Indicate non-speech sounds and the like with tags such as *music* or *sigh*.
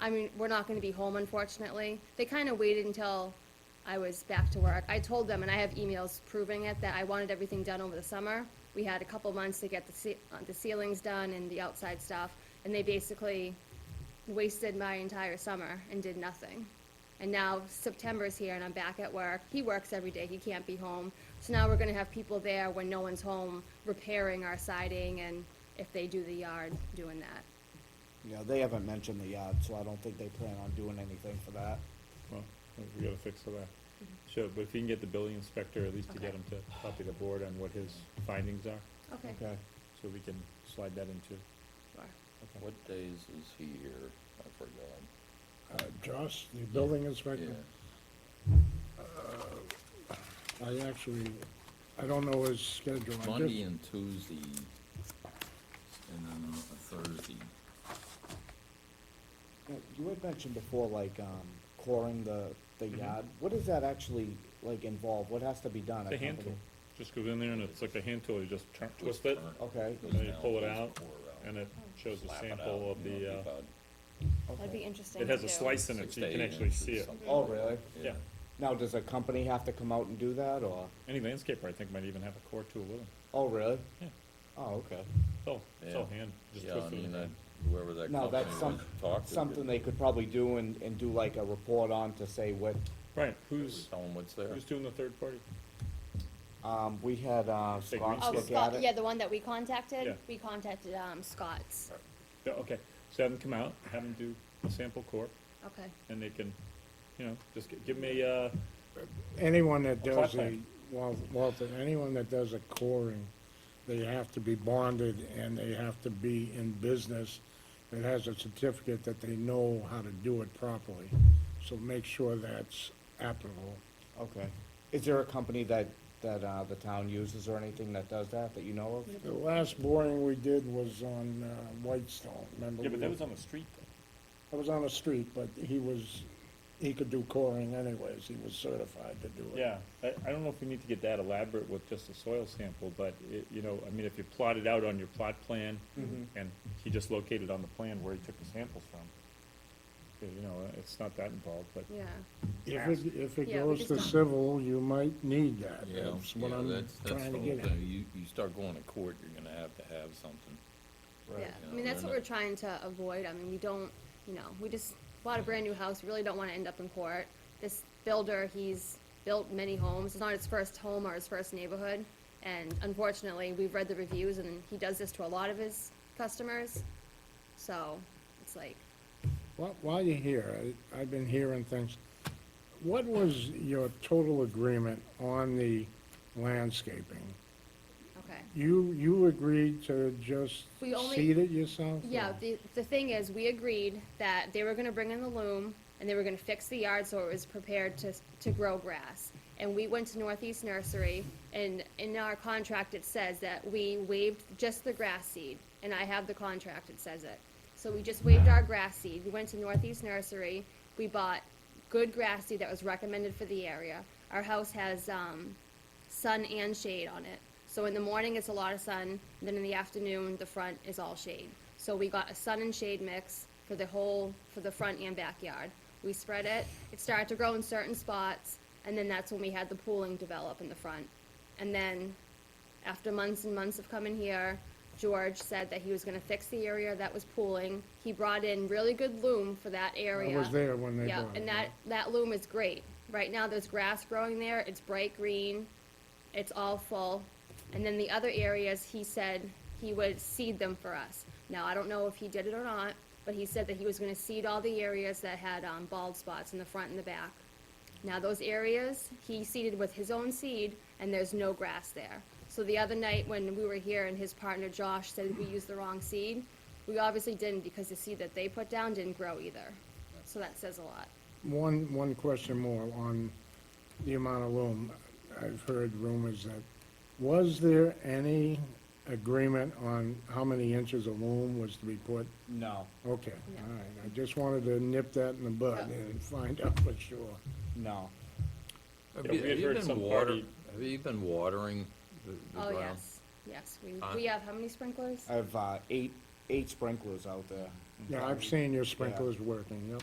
I mean, we're not gonna be home unfortunately. They kinda waited until I was back to work. I told them, and I have emails proving it, that I wanted everything done over the summer. We had a couple months to get the ce- uh, the ceilings done and the outside stuff, and they basically wasted my entire summer and did nothing. And now September's here and I'm back at work. He works every day, he can't be home. So now we're gonna have people there when no one's home repairing our siding and if they do the yard, doing that. You know, they haven't mentioned the yard, so I don't think they plan on doing anything for that. Well, we gotta fix all that. Sure, but if you can get the building inspector, at least to get Okay. him to copy the board on what his findings are, Okay. so we can slide that into. Sure. What days is he here? I forgot. Uh, Josh, the building inspector, Yeah, I actually, I don't know his schedule. I Monday did- and Tuesday, and then a Thursday. Now, You had mentioned before, like, um, coring the, the yard. What does that actually, like, involve? What has to be done? It's a at hand tool. company? Just goes in there and it's like a hand tool, you just turn, twist Twist it, turn. Okay, and then you Doesn't pull it help, out, doesn't pour it out. and it shows a Slap it sample out, of you the, know, it'd be uh, about That'd be okay. interesting it to has a do. slice in it, six so you to can eight actually inches, see it. something Oh, like that. really? Yeah, Now, does a company have to come out and do that, or? any landscaper, I think, might even have a core tool with them. Oh, really? Yeah. Oh, okay. It's all, it's all Yeah. hand, just Yeah, I twist it. in mean, the that, hand. whoever that No, company that's was some, to talk to. something they could probably do and, and do like a report on to say what, Right, Who's who's, telling what's there? who's doing the third party? um, we had, uh, Big Scott Oh, look at Scott, yeah, it. the one that we Yeah. contacted, we contacted, um, Scott's. Yeah, Okay, so have them come out, have them do a sample core, Okay. and they can, you know, just gi- give me, uh, Anyone that A plot does the, plan. Wal- Walter, anyone that does a coring, they have to be bonded and they have to be in business. It has a certificate that they know how to do it properly, so make sure that's applicable. Okay. Is there a company that, that, uh, the town uses or anything that does that, that you know of? The last boring we did was on uh, Whitestone, remember? yeah, but we that were- was on the street, though. I was on the street, but he was, he could do coring anyways, he was certified to do it. Yeah, I, I don't know if we need to get that elaborate with just a soil sample, but it, you know, I mean, if you plot it out on your plot plan, and he just located on the plan where he took the samples from, you know, it's not that involved, but, Yeah, If it, if it Yeah, we goes just to don't- civil, you might need that, Yeah, that's what yeah, I'm that's, that's trying the to whole get at. thing. You, you start going to court, you're gonna have to have something. yeah. you I know, mean, that's they're what we're not- trying to avoid. I mean, we don't, you know, we just bought a brand-new house, We really don't wanna end up in court. This builder, he's built many homes, it's not his first home or his first neighborhood. And unfortunately, we've read the reviews and he does this to a lot of his customers. So, it's like, Wh- While you're here, I, I've been hearing things. What was your total agreement on the landscaping? okay. You, you agreed to just We only- seed it yourself? Yeah, or- the, the thing is, we agreed that they were gonna bring in the loom, and they were gonna fix the yard so it was prepared to, to grow grass. And we went to Northeast Nursery, and in our contract, it says that we waived just the grass seed, and I have the contract, it says it. So we just waived our grass seed, we went to Northeast Nursery, we bought good grass seed that was recommended for the area. Our house has, um, sun and shade on it. So in the morning, it's a lot of sun, then in the afternoon, the front is all shade. So we got a sun and shade mix for the whole, for the front and backyard. We spread it, it started to grow in certain spots, and then that's when we had the pooling develop in the front. And then, after months and months of coming here, George said that he was gonna fix the area that was pooling. He brought in really good loom for that area. I was there when they Yeah, bought it. and that, that loom is great. Right now, there's grass growing there, it's bright green, it's all full. And then the other areas, he said he would seed them for us. Now, I don't know if he did it or not, but he said that he was gonna seed all the areas that had, um, bald spots in the front and the back. Now, those areas, he seeded with his own seed, and there's no grass there. So the other night, when we were here and his partner Josh said we used the wrong seed, we obviously didn't because the seed that they put down didn't grow either. So that says a lot. One, one question more on the amount of loom. I've heard rumors that, was there any agreement on how many inches of loom was to be put? No, Okay, all right, I just wanted to nip that in the bud Yeah. and find *laughs* out for sure. no. Have Yeah, you, we had have you heard been some water, party- have you been watering the, the Oh, ground? yes, yes, we, Huh? we have how many sprinklers? I have, uh, eight, eight sprinklers out there. Yeah, I've seen your sprinklers working, yep.